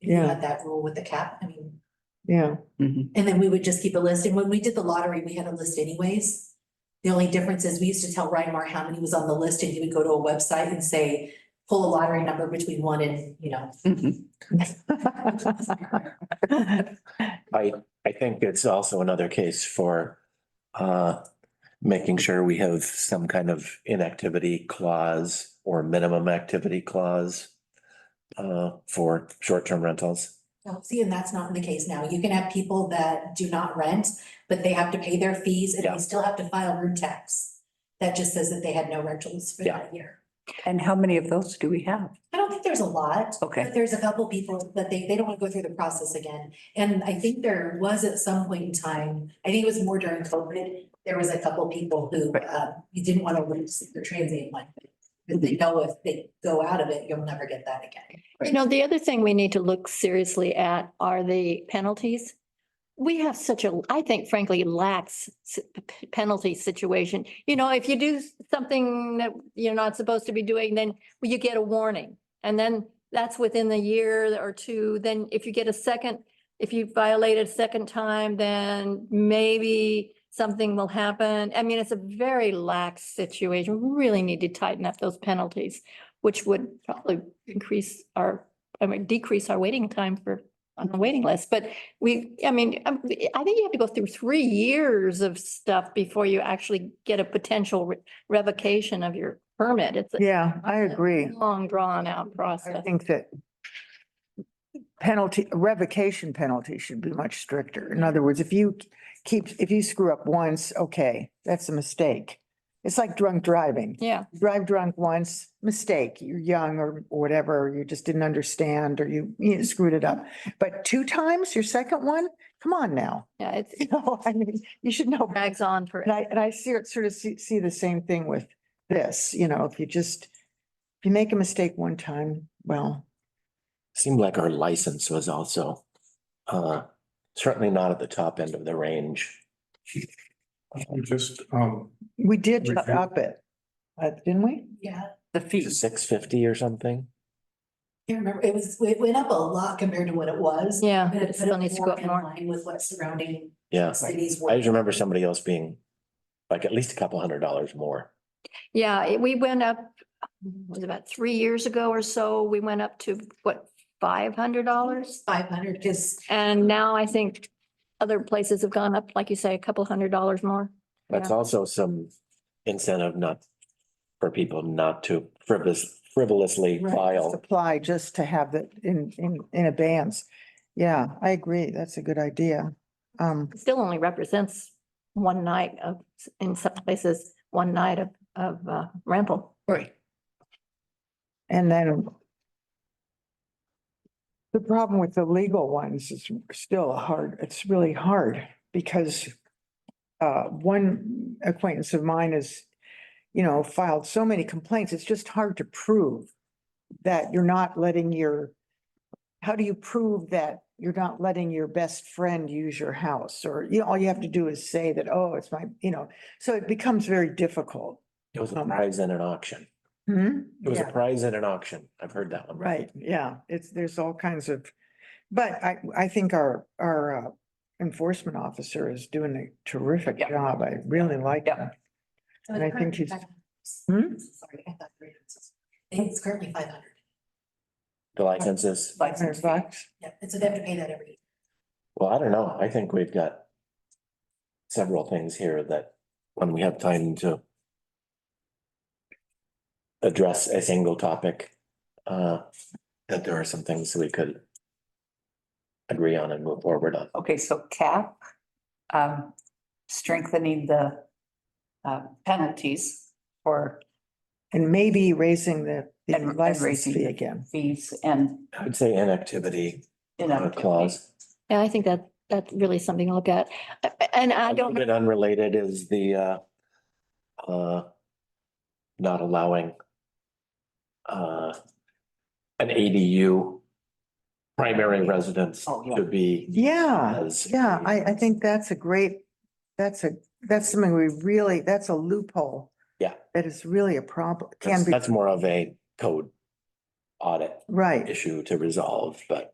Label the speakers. Speaker 1: if you
Speaker 2: Yeah.
Speaker 1: had that rule with the cap, I mean,
Speaker 2: yeah,
Speaker 1: and then we would just keep a list, and when we did the lottery, we had a list anyways. The only difference is we used to tell Reinmar how many was on the list, and he would go to a website and say, pull a lottery number between one and, you know.
Speaker 3: I, I think it's also another case for uh, making sure we have some kind of inactivity clause or minimum activity clause uh, for short-term rentals.
Speaker 1: No, See, and that's not in the case now, you can have people that do not rent, but they have to pay their fees and
Speaker 3: Yeah.
Speaker 1: they still have to file room tax. That just says that they had no rentals for
Speaker 3: Yeah.
Speaker 1: that year.
Speaker 4: And how many of those do we have?
Speaker 1: I don't think there's a lot.
Speaker 4: Okay.
Speaker 1: But there's a couple people that they, they don't want to go through the process again. And I think there was at some point in time, I think it was more during COVID, there was a couple people who,
Speaker 4: Right.
Speaker 1: uh, you didn't want to lose their transient one. But they know if they go out of it, you'll never get that again.
Speaker 5: You know, the other thing we need to look seriously at are the penalties. We have such a, I think frankly, lax s- p- penalty situation. You know, if you do something that you're not supposed to be doing, then you get a warning. And then that's within the year or two. Then if you get a second, if you violate it a second time, then maybe something will happen. I mean, it's a very lax situation. We Really need to tighten up those penalties which would probably increase our, I mean, decrease our waiting time for, on the waiting list. But we, I mean, um, I think you have to go through three years of stuff before you actually get a potential re- revocation of your permit. It's a
Speaker 2: yeah, I agree.
Speaker 5: long drawn out
Speaker 2: I
Speaker 5: process.
Speaker 2: think that penalty, revocation penalty should be much stricter. In other words, if you keep, if you screw up once, okay, that's a mistake. It's like drunk driving.
Speaker 5: Yeah,
Speaker 2: Drive drunk once, mistake, you're young or or whatever, or you just didn't understand or you you know, screwed it up. But two times, your second one, come on now.
Speaker 5: yeah, it's-
Speaker 2: You
Speaker 5: it
Speaker 2: know, I mean, you should know better.
Speaker 5: drags on for,
Speaker 2: And I, and I see it sort of see, see the same thing with this, you know, if you just, if you make a mistake one time, well,
Speaker 3: Seemed like our license was also uh, certainly not at the top end of the range.
Speaker 6: We Just, um,
Speaker 2: we did
Speaker 6: We
Speaker 2: ju-
Speaker 6: did.
Speaker 2: up it. uh, didn't we?
Speaker 1: Yeah,
Speaker 4: The fees.
Speaker 3: Six fifty or something?
Speaker 1: I remember, it was, it went up a lot compared to what it was.
Speaker 5: yeah,
Speaker 1: But
Speaker 5: it
Speaker 1: it put
Speaker 5: still needs
Speaker 1: it
Speaker 5: to go
Speaker 1: more
Speaker 5: up
Speaker 1: in
Speaker 5: more.
Speaker 1: line with what surrounding
Speaker 3: Yeah.
Speaker 1: cities were.
Speaker 3: I just remember somebody else being like at least a couple hundred dollars more.
Speaker 5: Yeah, it- we went up, mm, was it about three years ago or so, we went up to what, five hundred dollars?
Speaker 1: Five hundred, because
Speaker 5: And now I think other places have gone up, like you say, a couple hundred dollars more.
Speaker 3: That's
Speaker 5: Yeah.
Speaker 3: also some incentive not for people not to frivolous frivolously
Speaker 1: Right,
Speaker 3: file.
Speaker 2: Supply just to have that in, in, in advance. Yeah, I agree. That's a good idea. Um,
Speaker 5: It Still only represents one night of, in some places, one night of, of uh, rental.
Speaker 2: Right. And then the problem with the legal ones is still a hard, it's really hard because uh, one acquaintance of mine has, you know, filed so many complaints, it's just hard to prove that you're not letting your, how do you prove that you're not letting your best friend use your house? Or, you know, all you have to do is say that, oh, it's my, you know, so it becomes very difficult.
Speaker 3: It was a
Speaker 2: Um,
Speaker 3: prize in an auction.
Speaker 2: Hmm?
Speaker 3: It was a
Speaker 2: Yeah.
Speaker 3: prize in an auction. I've heard that one.
Speaker 2: Right, yeah, it's, there's all kinds of, but I, I think our, our uh, enforcement officer is doing a terrific
Speaker 4: Yeah.
Speaker 2: job. I really like
Speaker 4: Yeah.
Speaker 2: him.
Speaker 1: So
Speaker 2: And
Speaker 1: it's
Speaker 2: I think
Speaker 1: currently
Speaker 2: he's-
Speaker 1: 500. Sorry, I thought three hundred. I think It's currently five hundred.
Speaker 3: The licenses.
Speaker 2: Five hundred bucks.
Speaker 1: Yeah, and so they have to pay that every year.
Speaker 3: Well, I don't know. I think we've got several things here that when we have time to address a single topic, uh, that there are some things we could agree on and move forward on.
Speaker 4: Okay, so cap, um, strengthening the uh, penalties for
Speaker 2: And maybe raising the, the
Speaker 4: And- and
Speaker 2: license
Speaker 4: raising
Speaker 2: fee
Speaker 4: the-
Speaker 2: again.
Speaker 4: fees and
Speaker 3: I would say inactivity uh,
Speaker 4: inactivity.
Speaker 3: clause.
Speaker 5: Yeah, I think that, that's really something to look at. A- And I
Speaker 3: A little
Speaker 5: don't,
Speaker 3: bit unrelated is the uh, uh, not allowing uh, an ADU primary residence
Speaker 4: Oh, yeah.
Speaker 3: to be.
Speaker 2: Yeah,
Speaker 3: as
Speaker 2: yeah,
Speaker 3: a-
Speaker 2: I, I think that's a great, that's a, that's something we really, that's a loophole.
Speaker 3: Yeah.
Speaker 2: That is really a problem, can
Speaker 3: That's
Speaker 2: be,
Speaker 3: that's more of a code audit
Speaker 2: right.
Speaker 3: issue to resolve, but